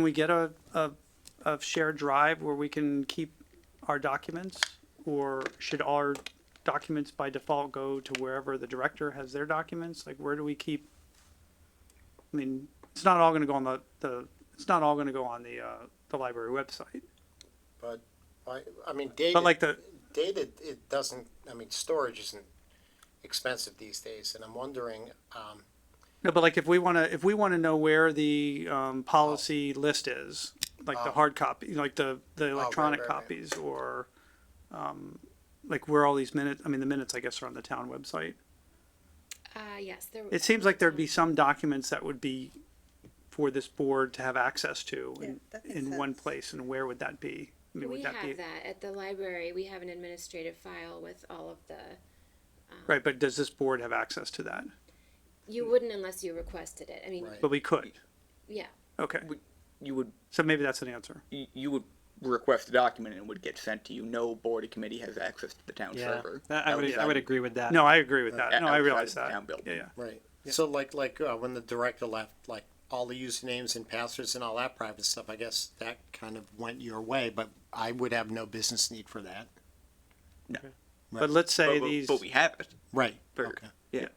Can we get a, a, a shared drive where we can keep our documents? Or should our documents by default go to wherever the director has their documents? Like, where do we keep? I mean, it's not all gonna go on the, the, it's not all gonna go on the, uh, the library website. But, I, I mean, data. But like the, Data, it doesn't, I mean, storage isn't expensive these days, and I'm wondering, um, no, but like if we wanna, if we wanna know where the, um, policy list is, like the Oh. hard copy, like the, Oh, the right, electronic right, right. copies or, um, like where all these minutes, I mean, the minutes, I guess, are on the town website. Uh, yes, there. It seems like there'd be Mm. some documents that would be for this board to have access to Yeah, in, that makes in one sense. place, and where would that be? I mean, We would that have be, that at the library. We have an administrative file with all of the, right, but does this board have access to that? you wouldn't unless you requested it. I mean, Right. But we could, yeah, okay, you would so maybe that's an answer. you you would request a document and it would get sent to you. No board or committee has access to the town Yeah, server. that, I would, I outside- would agree with that. No, I agree with that, no, I outside realize of the that, uh, town building. yeah, yeah, right, so like, like, uh, when the director left, like, all the usernames and passwords and all that private stuff, I guess that kind of went your way, but I would have no business need for that. but let's say but, these, but we have it. Right, For, okay, Yeah.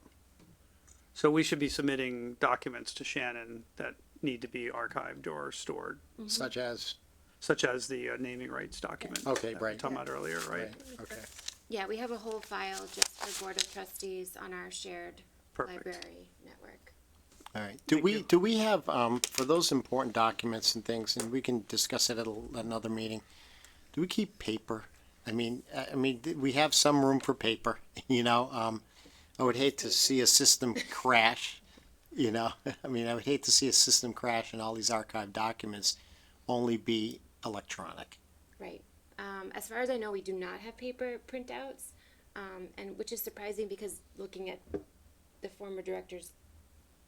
so we should be submitting documents to Shannon that need to be archived or stored, such as, such as the uh, naming rights document. that Okay, we were right. Talking about earlier, right? right, okay, yeah, we have a whole file just for board of trustees on our shared Perfect. library network. all right. Do we, do we have, um, for those important documents and things, and we can discuss it at a- another meeting, do we keep paper? I mean, I I mean, th- we have some room for paper, you know, um, I would hate to see a system crash, you know, I mean, I would hate to see a system crash and all these archived documents only be electronic. Right. Um, as far as I know, we do not have paper printouts, um, and which is surprising because looking at the former director's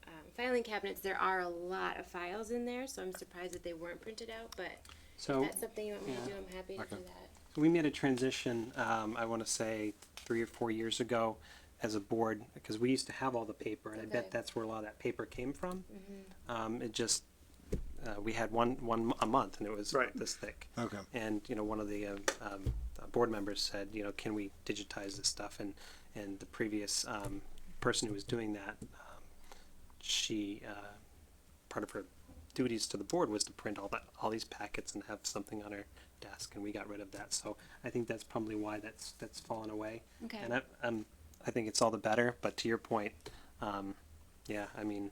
um, filing cabinets, there are a lot of files in there, so I'm surprised that they weren't printed out. But if So that's something you want me to do, I'm happy to do that. we made a transition, um, I want to say three or four years ago as a board, because we used to have all the paper and I Okay. bet that's where a lot of that paper came from. Um, it just, uh, we had one, one a month and it was Right. this thick. Okay. And, you know, one of the, um, um, uh, board members said, you know, can we digitize this stuff? And, and the previous, um, person who was doing that, um, she, uh, part of her duties to the board was to print all that, all these packets and have something on her desk, and we got rid of that. So I think that's probably why that's that's fallen away. Okay. And I, um, I think it's all the better. But to your point, um, yeah, I mean,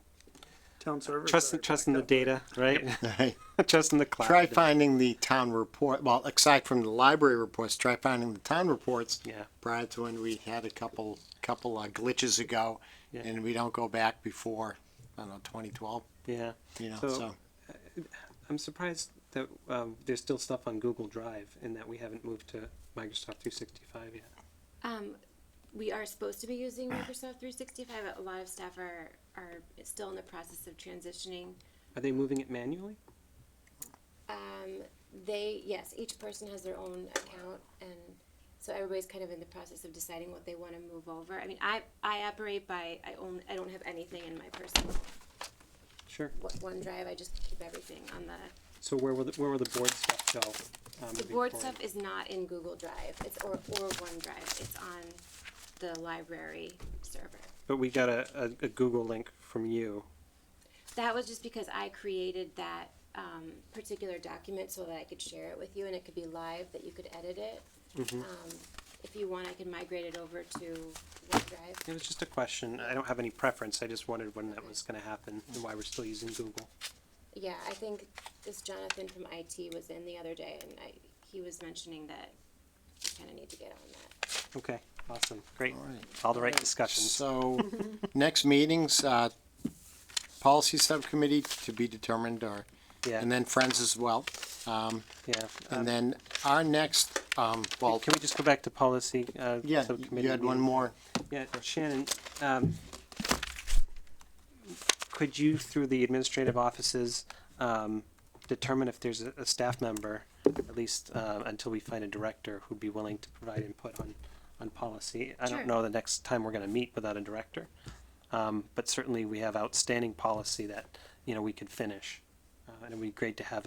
Town server. trust trust in the data, right? trust in the cloud. Try finding the town report, well, aside from the library reports, try finding the town reports. Yeah. Prior to when we had a couple, couple uh, glitches ago, Yeah. and we don't go back before, I don't know, twenty twelve, Yeah. you know, So- so. I'm surprised that um, there's still stuff on Google Drive, and that we haven't moved to Microsoft 365 yet. Um, we are supposed to be using Microsoft 365. A lot of staff are are still in the process of transitioning. Are they moving it manually? Um, they, yes, each person has their own account and so everybody's kind of in the process of deciding what they wanna move over. I mean, I, I operate by, I own, I don't have anything in my personal Sure. o- OneDrive, I just keep everything on the, So where will the, where will the board stuff go? Um, the moving board forward? stuff is not in Google Drive, it's or, or OneDrive, it's on the library server. But we got a, a, a Google link from you. That was just because I created that, um, particular document so that I could share it with you and it could be live, that you could edit it. Um, if you want, I can migrate it over to OneDrive. It was just a question. I don't have any preference. I just wondered when that was gonna happen and why we're still using Google. Yeah, I think this Jonathan from IT was in the other day and I, he was mentioning that you kinda need to get on that. Okay, awesome, great. All right. All the right discussions. So, next meetings, uh, policy subcommittee to be determined or, Yeah, and then friends as well. Um, yeah. Um, and then our next, um, well, Can we just go back to policy? uh, yeah, subcommittee you had one meeting? more. Yeah, Shannon, um, could you, through the administrative offices, um, determine if there's a, a staff member, at least, uh, until we find a director who'd be willing to provide input on, on policy? I Sure. don't know the next time we're gonna meet without a director. Um, but certainly we have outstanding policy that, you know, we could finish. Um, and it'd be great to have